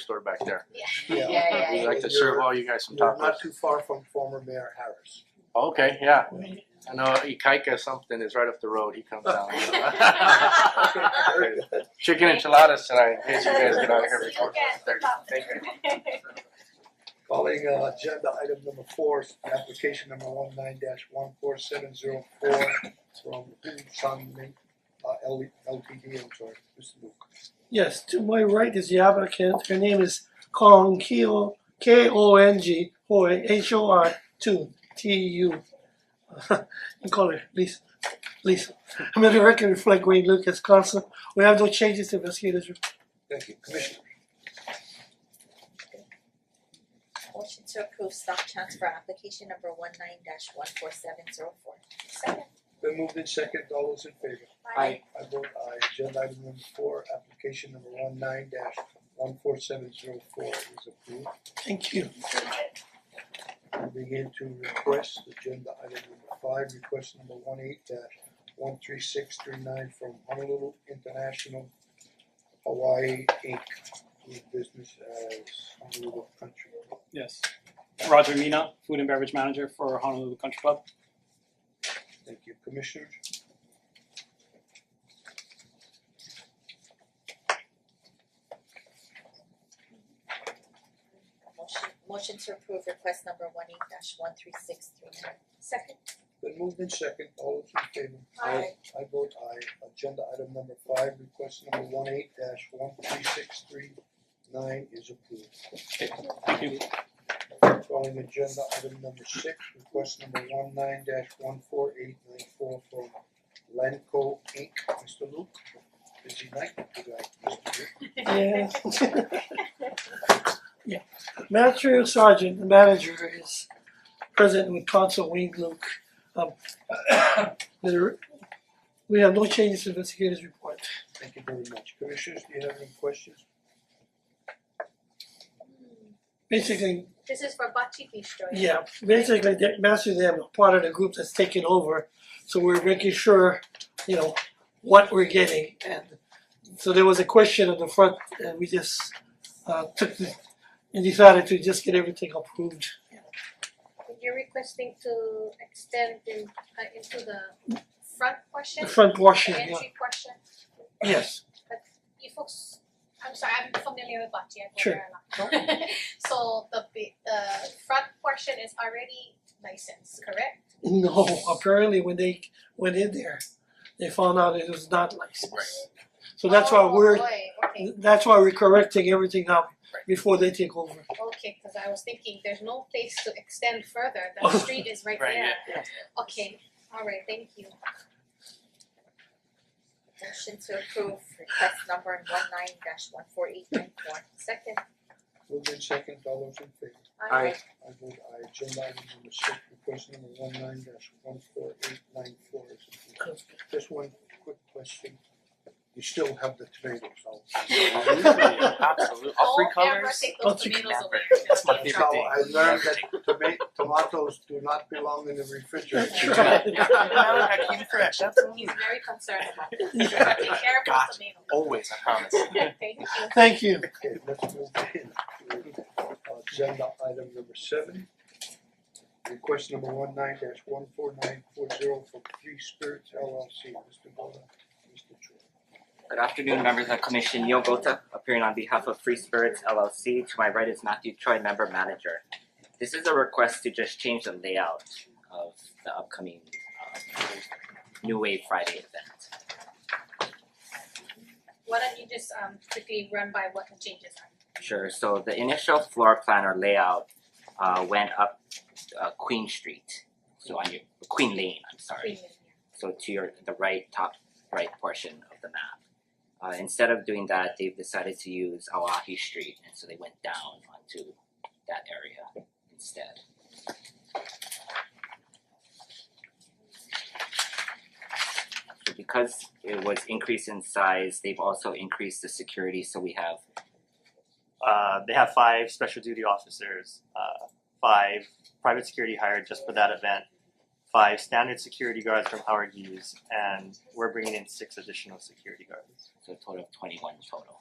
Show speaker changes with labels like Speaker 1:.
Speaker 1: store back there.
Speaker 2: Yeah.
Speaker 3: Yeah,
Speaker 1: We'd
Speaker 3: yeah,
Speaker 1: like to serve all you guys some
Speaker 2: You're
Speaker 1: tacos.
Speaker 2: not too far from former Mayor Harris.
Speaker 1: Okay, yeah. I know Ikaika something is right up the road. He comes down.
Speaker 2: Very good.
Speaker 1: Chicken enchiladas tonight, in case you guys get out of here before thirty. Thank you.
Speaker 2: Calling uh, agenda item number four, application number one nine dash one four seven zero four from Sun Ming, uh, L- LTD, I'm sorry, Mr. Luke.
Speaker 4: Yes, to my right is the applicant. Her name is Kong Keo, K O N G Hoi, H O I 2 T U. You call her Lisa. Lisa. I'm the record reflect Wayne Lucas, counsel. We have no changes to investigators. report.
Speaker 2: Thank you, Commissioner.
Speaker 5: Motion to approve stock transfer application number one nine dash one four seven zero four. Second.
Speaker 2: Been moved in second, all those in favor?
Speaker 3: Aye.
Speaker 2: I vote aye, agenda item number four, application number one nine dash one four seven zero four is approved.
Speaker 4: Thank you.
Speaker 2: Moving into requests, agenda item number five, request number one eight dash one three six three nine from Honolulu International Hawaii Inc. Doing business as Honolulu Country Club.
Speaker 6: Yes. Roger Mina, food and beverage manager for Honolulu Country Club.
Speaker 2: Thank you, Commissioners.
Speaker 5: Motion motion to approve request number one eight dash one three six three nine. Second.
Speaker 2: Then moved in second, all those in favor?
Speaker 5: Aye.
Speaker 2: I vote aye, agenda item number five, request number one eight dash one three six three nine is approved.
Speaker 6: Thank you.
Speaker 2: Calling agenda item number six, request number one nine dash one four eight nine four from Lanco Inc., Mr. Luke. Busy night, you guys, Mr. Luke.
Speaker 4: Yeah. yeah. Matthew Sergeant, the manager, is present with Consul Wayne Luke. Um, there- we have no changes to investigators report.
Speaker 2: Thank you very much. Commissioners, do you have any questions?
Speaker 4: Basically,
Speaker 3: This is for Bachi Bistro.
Speaker 4: yeah, basically, the master them are part of the group that's taking over, so we're making sure, you know, what we're getting, and so there was a question on the front, and we just uh took the, and decided to just get everything approved.
Speaker 3: You're requesting to extend in uh into the front portion,
Speaker 4: The front portion,
Speaker 3: the
Speaker 4: yeah,
Speaker 3: entry portion.
Speaker 4: yes,
Speaker 3: You folks, I'm sorry, I'm familiar with Bachi, I've
Speaker 4: Sure.
Speaker 3: been there a lot. So the bi- the front portion is already licensed, correct?
Speaker 4: no, apparently when they went in there, they found out it was not licensed. So that's why
Speaker 3: Oh,
Speaker 4: we're,
Speaker 3: boy, okay,
Speaker 4: that's why we're correcting everything now before they take over.
Speaker 3: okay, cause I was thinking there's no place to extend further, the street is right there.
Speaker 1: Right, yeah.
Speaker 3: Okay, alright, thank you.
Speaker 5: Motion to approve request number one nine dash one four eight nine four. Second.
Speaker 2: Moved in second, all those in favor?
Speaker 1: Aye.
Speaker 2: I vote aye, agenda item number six, request number one nine dash one four eight nine four is approved. Just one quick question. You still have the tomatoes, I'll.
Speaker 1: Absolutely, absolutely. All three
Speaker 3: Don't ever
Speaker 1: colors.
Speaker 3: take
Speaker 4: All
Speaker 3: Oh, those
Speaker 4: three
Speaker 3: tomatoes
Speaker 1: colors.
Speaker 3: away.
Speaker 1: That's my
Speaker 2: That's
Speaker 1: favorite
Speaker 2: how
Speaker 1: thing.
Speaker 2: I learned that toma- tomatoes do not belong in the refrigerator.
Speaker 4: That's right.
Speaker 1: Hakeem Fresh, absolutely.
Speaker 3: He's very concerned about this. Take
Speaker 1: Yeah.
Speaker 3: care of
Speaker 1: Gotcha.
Speaker 3: those tomatoes.
Speaker 1: Always, I promise.
Speaker 3: Thank you.
Speaker 4: Thank you.
Speaker 2: Okay, let's move in. to Agenda item number seven. Request number one nine dash one four nine four zero from Three Spirits LLC, Mr. Bona, Mr. Choi.
Speaker 7: Good afternoon, members of the commission. Neil Gota, appearing on behalf of Free Spirits LLC. To my right is Matthew Choi, member manager. This is a request to just change the layout of the upcoming uh, New Wave Friday event.
Speaker 3: Why don't you just um quickly run by what the changes are?
Speaker 7: Sure, so the initial floor plan or layout uh, went up uh, Queen Street, so on your, Queen Lane, I'm sorry.
Speaker 3: Please.
Speaker 7: so to your the right top right portion of the map. Uh, instead of doing that, they've decided to use Oahe Street, and so they went down onto that area instead. So because it was increased in size, they've also increased the security, so we have
Speaker 8: Uh, they have five special duty officers, uh, five private security hired just for that event, five standard security guards from Howard Hughes, and we're bringing in six additional security guards.
Speaker 7: so a total of 21 total.